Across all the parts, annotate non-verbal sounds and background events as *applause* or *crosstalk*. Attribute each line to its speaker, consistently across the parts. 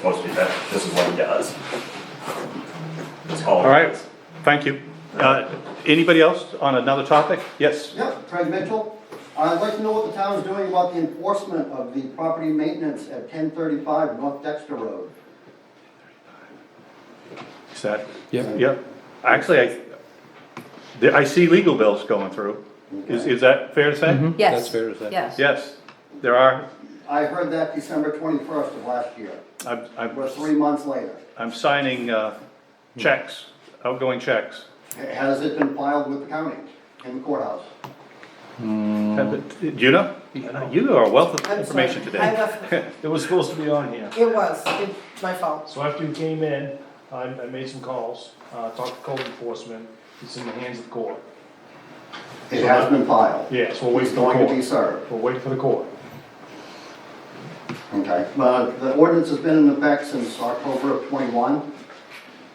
Speaker 1: supposed to be that, this is what he does. That's all.
Speaker 2: All right, thank you. Uh, Anybody else on another topic? Yes,
Speaker 3: Yep, Craig Mitchell. I'd like to know what the town's doing about the enforcement of the property maintenance at ten thirty-five North Dexter Road.
Speaker 2: is that?
Speaker 4: Yep.
Speaker 2: Yep. Actually, I, the- I see legal bills going through. Is, is that fair to
Speaker 5: Mm-hmm.
Speaker 2: say?
Speaker 6: Yes.
Speaker 4: That's fair to say.
Speaker 6: Yes.
Speaker 2: Yes, there are.
Speaker 3: I heard that December twenty-first of last year,
Speaker 2: I'm,
Speaker 3: we're
Speaker 2: I'm,
Speaker 3: three months later.
Speaker 2: I'm signing uh, checks, outgoing checks.
Speaker 3: Has it been filed with the county in the courthouse?
Speaker 5: Mm-hmm.
Speaker 2: Juna, you are a wealth of
Speaker 7: I'm
Speaker 2: information
Speaker 7: sorry. I
Speaker 2: today. *laughs*
Speaker 7: left-
Speaker 5: It was supposed to be on here.
Speaker 7: It was, it, my fault.
Speaker 5: So after you came in, I, I made some calls, uh, talked to code enforcement, it's in the hands of the court.
Speaker 3: It has been filed.
Speaker 5: Yes, we'll wait
Speaker 3: It's
Speaker 5: for the
Speaker 3: going to be
Speaker 5: court.
Speaker 3: served,
Speaker 5: We'll wait for the court.
Speaker 3: okay? But the ordinance has been in effect since October of twenty-one.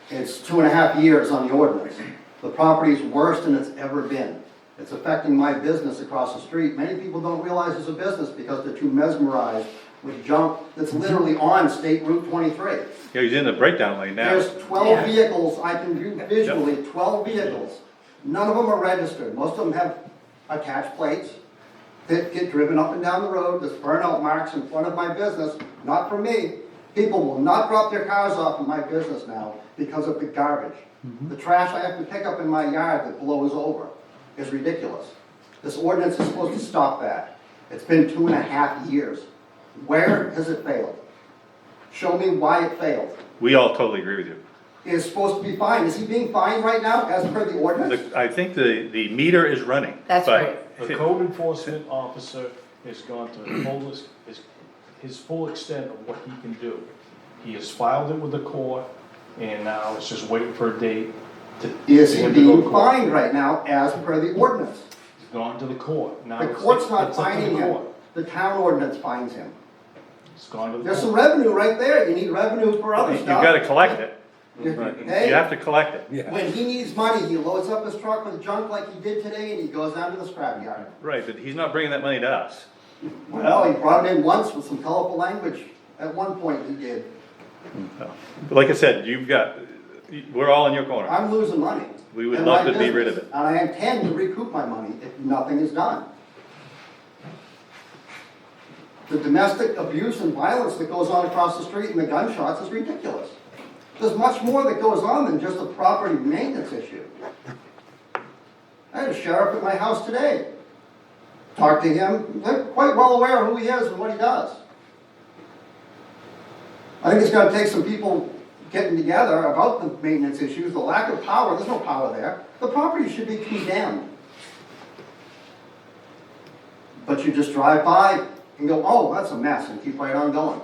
Speaker 3: It's two and a half years on the ordinance. The property's worse than it's ever been. It's affecting my business across the street. Many people don't realize it's a business because they're too mesmerized with junk that's literally on State Route 23.
Speaker 2: Yeah, He's in the breakdown lane now.
Speaker 3: There's 12 vehicles, I can view visually, 12 vehicles. None of them are registered. Most of them have attached plates that get driven up and down the road. There's burnout marks in front of my business, not for me. People will not drop their cars off in my business now because of the garbage. The trash I have to pick up in my yard that blows over is ridiculous. This ordinance is supposed to stop that. It's been two and a half years. Where has it failed? Show me why it failed
Speaker 2: We all totally agree with you.
Speaker 3: is supposed to be fined. Is he being fined right now as per the ordinance?
Speaker 2: The- I think the, the meter is running.
Speaker 6: That's
Speaker 2: but-
Speaker 6: right.
Speaker 5: The code enforcement officer has gone to the fullest, his, his full extent of what he can do. He has filed it with the court, and now it's just waiting for a date to.
Speaker 3: Is
Speaker 5: for
Speaker 3: he
Speaker 5: him to go to
Speaker 3: being
Speaker 5: court.
Speaker 3: fined right now as per the ordinance?
Speaker 5: He's gone to the court, now.
Speaker 3: The
Speaker 5: it's-
Speaker 3: court's not
Speaker 5: it's up to the
Speaker 3: finding him.
Speaker 5: court.
Speaker 3: The town ordinance fines him.
Speaker 5: It's gone to the
Speaker 3: There's some
Speaker 5: court.
Speaker 3: revenue right there. You need revenue for other
Speaker 2: You've
Speaker 3: stuff.
Speaker 2: got to collect it. You have
Speaker 3: Hey,
Speaker 2: to collect it.
Speaker 4: Yeah.
Speaker 3: when he needs money, he loads up his truck with junk like he did today and he goes down to the scrapyard.
Speaker 2: Right, but he's not bringing that money to us.
Speaker 3: Well, he brought it in once with some colorful language. At one point he did.
Speaker 2: But Like I said, you've got, we're all in your corner.
Speaker 3: I'm losing money.
Speaker 2: We would
Speaker 3: in
Speaker 2: love
Speaker 3: my
Speaker 2: to be rid of
Speaker 3: business, And I intend to recoup my money if nothing is done. The domestic abuse and violence that goes on across the street and the gunshots is ridiculous. There's much more that goes on than just a property maintenance issue. I had a sheriff at my house today. Talked to him, they're quite well aware of who he is and what he does. I think it's gonna take some people getting together about the maintenance issues, the lack of power, there's no power there. The property should be condemned. But you just drive by and go, oh, that's a mess, and keep right on going.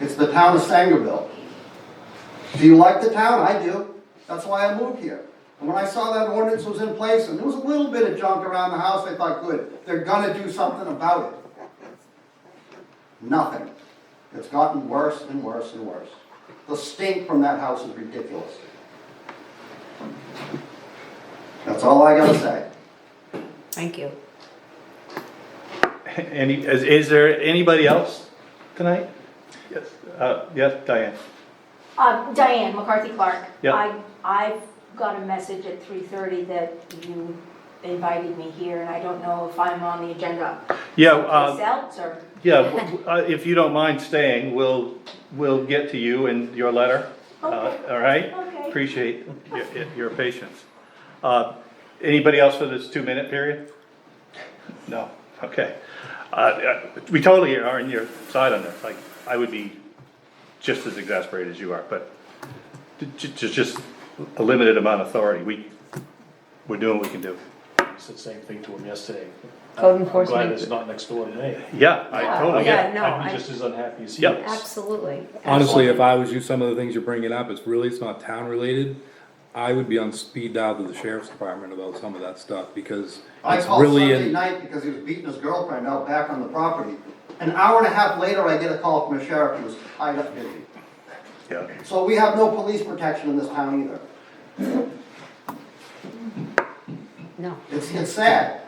Speaker 3: It's the town of Sangerville. Do you like the town? I do. That's why I moved here. And when I saw that ordinance was in place, and there was a little bit of junk around the house, I thought, good, they're gonna do something about it. Nothing. It's gotten worse and worse and worse. The stink from that house is ridiculous. That's all I gotta say.
Speaker 6: Thank you.
Speaker 2: Any, is, is there anybody else tonight? Yes, uh, yes, Diane.
Speaker 8: Um, Diane McCarthy Clark.
Speaker 2: Yeah.
Speaker 8: I, I've got a message at three thirty that you invited me here, and I don't know if I'm on the agenda.
Speaker 2: Yeah, uh,
Speaker 8: Yourselves, or?
Speaker 2: yeah, w- w- uh, if you don't mind staying, we'll, we'll get to you and your letter. Uh,
Speaker 8: Okay.
Speaker 2: all right?
Speaker 8: Okay.
Speaker 2: Appreciate your, your patience. Uh, anybody else for this two-minute period? No, okay. Uh, Uh, we totally are on your side on this, like, I would be just as exasperated as you are, but just, just, just a limited amount of authority, we, we're doing what we can do.
Speaker 5: I said the same thing to him yesterday.
Speaker 6: Code
Speaker 5: I'm
Speaker 6: enforcement.
Speaker 5: glad it's not next door to me.
Speaker 2: Yeah, I
Speaker 6: Yeah,
Speaker 2: totally get it.
Speaker 6: Yeah, no,
Speaker 5: I'd
Speaker 6: I-
Speaker 5: be just as unhappy as he
Speaker 2: Yep.
Speaker 5: is.
Speaker 6: Absolutely.
Speaker 4: Honestly, if I was you, some of the things you're bringing up, it's really, it's not town related. I would be on speed dial to the sheriff's department about some of that stuff because
Speaker 3: I
Speaker 4: it's
Speaker 3: called
Speaker 4: really,
Speaker 3: Sunday
Speaker 4: in-
Speaker 3: night because he was beating his girlfriend out back on the property. An hour and a half later, I get a call from a sheriff who was tied up busy.
Speaker 2: Yeah.
Speaker 3: So we have no police protection in this town either.
Speaker 6: No.
Speaker 3: It's, it's sad.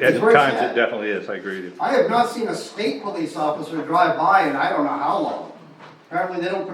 Speaker 2: At
Speaker 3: It's very
Speaker 2: times, it
Speaker 3: sad.
Speaker 2: definitely is, I agree with you.
Speaker 3: I have not seen a state police officer drive by in I don't know how long. apparently they don't